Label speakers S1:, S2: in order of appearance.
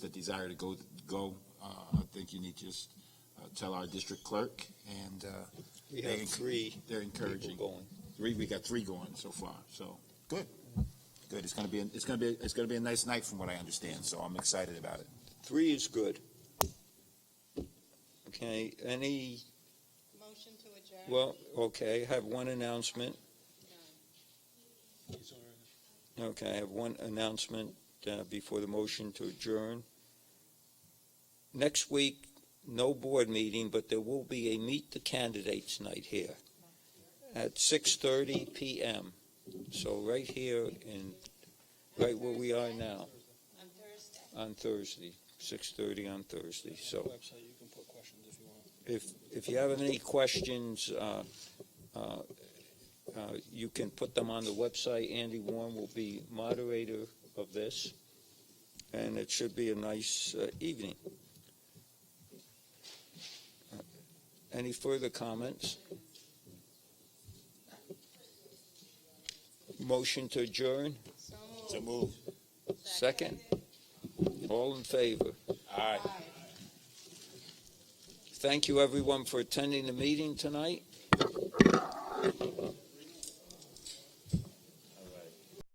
S1: the desire to go, go, uh, I think you need to just uh, tell our district clerk, and uh,
S2: We
S1: They
S2: have
S1: enc-
S2: three
S1: they're
S2: people
S1: encouraging.
S2: going.
S1: Three, we got three going so far, so, good. Good, it's gonna be, it's gonna be, it's gonna be a nice night from what I understand, so I'm excited about it.
S2: Three is good. Okay, any,
S3: Motion to adjourn.
S2: well, okay, I have one announcement. Okay, I have one announcement uh, before the motion to adjourn. Next week, no board meeting, but there will be a Meet the Candidates night here at 6:30 PM. So right here in, right where we are now,
S3: On Thursday.
S2: on Thursday, 6:30 on Thursday. So
S4: Website, you can put questions if you want.
S2: if, if you have any questions, uh, uh, uh, you can put them on the website. Andy Warren will be moderator of this, and it should be a nice uh, evening. Uh, Any further comments? Motion to adjourn?
S3: So
S1: So
S3: moved.
S1: move.
S2: Second. All in favor?
S1: Aye.
S3: Aye.
S2: Thank you, everyone, for attending the meeting tonight.